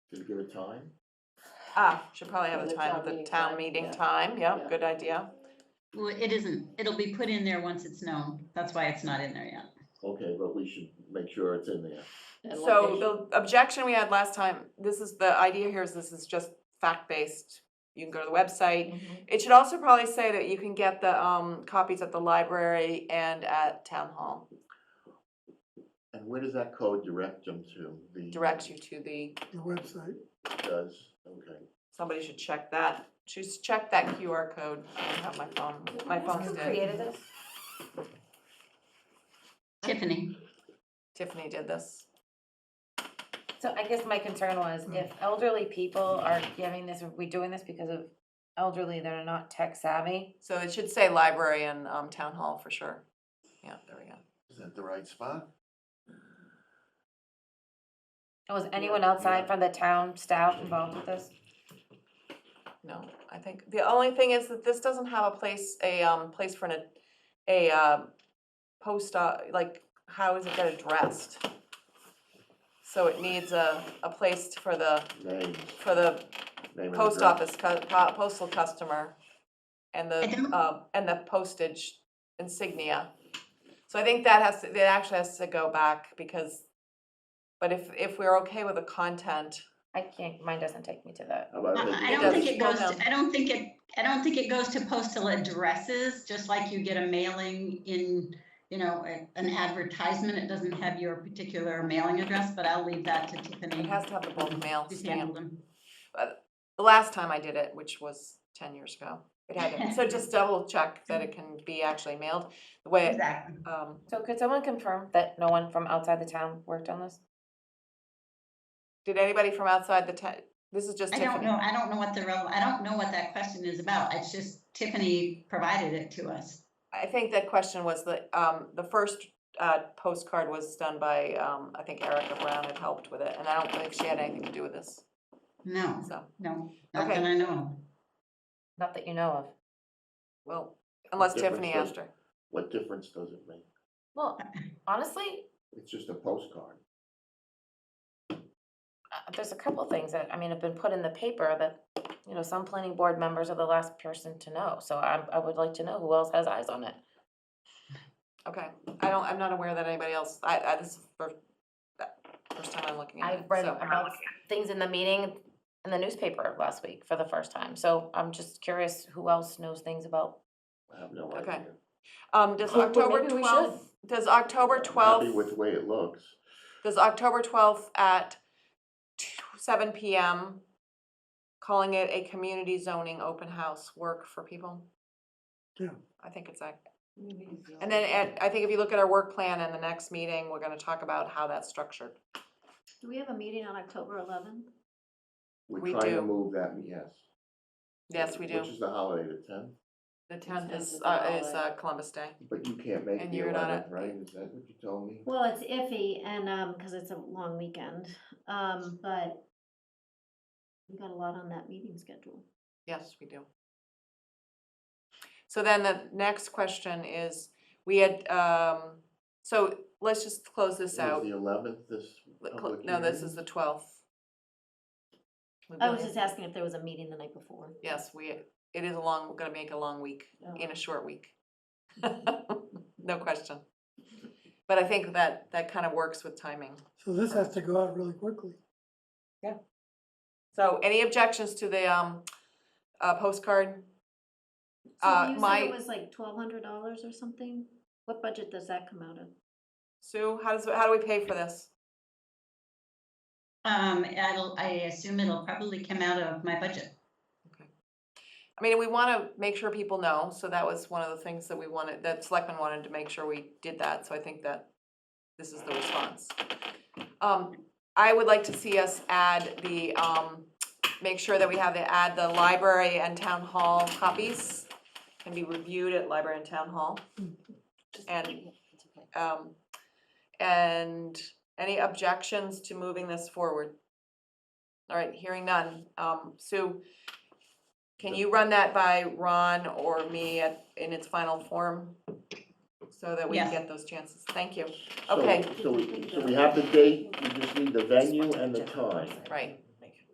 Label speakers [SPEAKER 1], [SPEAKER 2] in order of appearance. [SPEAKER 1] Can you give a time?
[SPEAKER 2] Ah, should probably have
[SPEAKER 3] And
[SPEAKER 2] a
[SPEAKER 3] the
[SPEAKER 2] time,
[SPEAKER 3] town
[SPEAKER 2] the
[SPEAKER 3] meeting
[SPEAKER 2] town
[SPEAKER 3] time,
[SPEAKER 2] meeting
[SPEAKER 3] yeah.
[SPEAKER 2] time, yeah,
[SPEAKER 3] Yeah.
[SPEAKER 2] good idea.
[SPEAKER 4] Well, it isn't, it'll be put in there once it's known, that's why it's not in there yet.
[SPEAKER 1] Okay, but we should make sure it's in there.
[SPEAKER 3] And
[SPEAKER 2] So the objection we had last time, this is, the idea here is this is just fact-based. You can go to the website.
[SPEAKER 3] location.
[SPEAKER 2] It should also probably say that you can get the, um, copies at the library and at town hall.
[SPEAKER 1] And where does that code direct them to? The
[SPEAKER 2] Directs you to the,
[SPEAKER 5] the website.
[SPEAKER 1] Does, okay.
[SPEAKER 2] somebody should check that, just check that QR code. I don't have my phone, my phone's dead.
[SPEAKER 3] this?
[SPEAKER 4] Tiffany,
[SPEAKER 2] Tiffany did this.
[SPEAKER 6] So I guess my concern was
[SPEAKER 2] Mm.
[SPEAKER 6] if elderly people are giving this, are we doing this because of elderly that are not tech savvy?
[SPEAKER 2] So it should say library and, um, town hall for sure. Yeah, there we go.
[SPEAKER 1] Is that the right spot?
[SPEAKER 6] And was anyone outside from the town staff involved with this?
[SPEAKER 2] No, I think, the only thing is that this doesn't have a place, a, um, place for an, a, uh, post, uh, like, how is it gonna addressed? So it needs a, a place for the,
[SPEAKER 1] Name,
[SPEAKER 2] for the
[SPEAKER 1] name and
[SPEAKER 2] post
[SPEAKER 1] address.
[SPEAKER 2] office, cu- po- postal customer and
[SPEAKER 4] I
[SPEAKER 2] the,
[SPEAKER 4] don't-
[SPEAKER 2] um, and the postage insignia. So I think that has, to- that actually has to go back because, but if, if we're okay with the content,
[SPEAKER 6] I can't, mine doesn't take me to that.
[SPEAKER 1] How about
[SPEAKER 4] I- I
[SPEAKER 1] making
[SPEAKER 4] don't think
[SPEAKER 1] sure-
[SPEAKER 4] it goes,
[SPEAKER 2] Hold on.
[SPEAKER 4] to- I don't think it, I don't think it goes to postal addresses, just like you get a mailing in, you know, a- an advertisement, it doesn't have your particular mailing address, but I'll leave that to Tiffany.
[SPEAKER 2] it has to have the bulk mail
[SPEAKER 4] She's
[SPEAKER 2] stamp.
[SPEAKER 4] handled them.
[SPEAKER 2] the last time I did it, which was ten years ago, it had it. So just double check that it can be actually mailed the way,
[SPEAKER 4] Exactly.
[SPEAKER 2] um,
[SPEAKER 6] So could someone confirm that no one from outside the town worked on this?
[SPEAKER 2] did anybody from outside the town? This is just
[SPEAKER 4] I don't
[SPEAKER 2] Tiffany.
[SPEAKER 4] know, I don't know what the, rel- I don't know what that question is about, it's just Tiffany provided it to us.
[SPEAKER 2] I think that question was the, um, the first, uh, postcard was done by, um, I think Erica Brown had helped with it, and I don't think she had anything to do with this,
[SPEAKER 4] No,
[SPEAKER 2] so,
[SPEAKER 4] no, not
[SPEAKER 2] Okay.
[SPEAKER 4] that I know of.
[SPEAKER 6] Not that you know of.
[SPEAKER 2] well, unless
[SPEAKER 1] difference
[SPEAKER 2] Tiffany
[SPEAKER 1] does-
[SPEAKER 2] asked her.
[SPEAKER 1] What difference does it make?
[SPEAKER 6] Well, honestly,
[SPEAKER 1] It's just a postcard.
[SPEAKER 6] uh, there's a couple things that, I mean, have been put in the paper that, you know, some planning board members are the last person to know. So I, I would like to know who else has eyes on it.
[SPEAKER 2] Okay, I don't, I'm not aware that anybody else, I, I, this is the first time I'm looking at it,
[SPEAKER 6] I read
[SPEAKER 2] so-
[SPEAKER 6] about things in the meeting in the newspaper last week for the first time, so I'm just curious who else knows things about.
[SPEAKER 1] I have no
[SPEAKER 2] Okay.
[SPEAKER 1] idea.
[SPEAKER 2] Um, does
[SPEAKER 6] Well,
[SPEAKER 2] October
[SPEAKER 6] maybe we should.
[SPEAKER 2] twelfth, does October
[SPEAKER 1] I'm
[SPEAKER 2] twelfth?
[SPEAKER 1] Happy with the way it looks.
[SPEAKER 2] Does October twelfth at t- seven PM, calling it a community zoning open house work for people?
[SPEAKER 5] Yeah.
[SPEAKER 2] I think it's that. And then at, I think if you look at our work plan in the next meeting, we're gonna talk about how that's structured.
[SPEAKER 3] Do we have a meeting on October eleventh?
[SPEAKER 2] We
[SPEAKER 1] We're trying
[SPEAKER 2] do.
[SPEAKER 1] to move that, yes.
[SPEAKER 2] Yes, we
[SPEAKER 1] Which
[SPEAKER 2] do.
[SPEAKER 1] is the holiday, the tenth,
[SPEAKER 2] The tenth
[SPEAKER 3] tenth
[SPEAKER 2] is,
[SPEAKER 3] is
[SPEAKER 2] uh,
[SPEAKER 3] the
[SPEAKER 2] is uh,
[SPEAKER 3] holiday.
[SPEAKER 2] Columbus Day.
[SPEAKER 1] but you can't make
[SPEAKER 2] And
[SPEAKER 1] the
[SPEAKER 2] you're not
[SPEAKER 1] eleventh,
[SPEAKER 2] a-
[SPEAKER 1] right? Is that what you told me?
[SPEAKER 3] Well, it's iffy and, um, cause it's a long weekend, um, but we got a lot on that meeting schedule.
[SPEAKER 2] Yes, we do. So then the next question is, we had, um, so let's just close this
[SPEAKER 1] Is
[SPEAKER 2] out.
[SPEAKER 1] the eleventh this
[SPEAKER 2] Let- cl-
[SPEAKER 1] public
[SPEAKER 2] No, this
[SPEAKER 1] hearing?
[SPEAKER 2] is the twelfth.
[SPEAKER 3] I was just asking if there was a meeting the night before.
[SPEAKER 2] Yes, we, it is a long, we're gonna make a long week,
[SPEAKER 3] Oh.
[SPEAKER 2] in a short week. No question. But I think that, that kind of works with timing.
[SPEAKER 5] So this has to go out really quickly.
[SPEAKER 2] So any objections to the, um, uh, postcard? Uh,
[SPEAKER 3] So you
[SPEAKER 2] my-
[SPEAKER 3] said it was like twelve hundred dollars or something? What budget does that come out of?
[SPEAKER 2] Sue, how does, how do we pay for this?
[SPEAKER 4] Um, I'll, I assume it'll probably come out of my budget.
[SPEAKER 2] I mean, we wanna make sure people know, so that was one of the things that we wanted, that selectmen wanted to make sure we did that, so I think that this is the response. Um, I would like to see us add the, um, make sure that we have the, add the library and town hall copies can be reviewed at library and town hall. And, um, and any objections to moving this forward? All right, hearing none. Um, Sue, can you run that by Ron or me at, in its final form? So that we can
[SPEAKER 4] Yes.
[SPEAKER 2] get those chances. Thank you.
[SPEAKER 1] So-
[SPEAKER 2] Okay.
[SPEAKER 1] So we, so we have the date, we just need the venue and the time.
[SPEAKER 2] Right.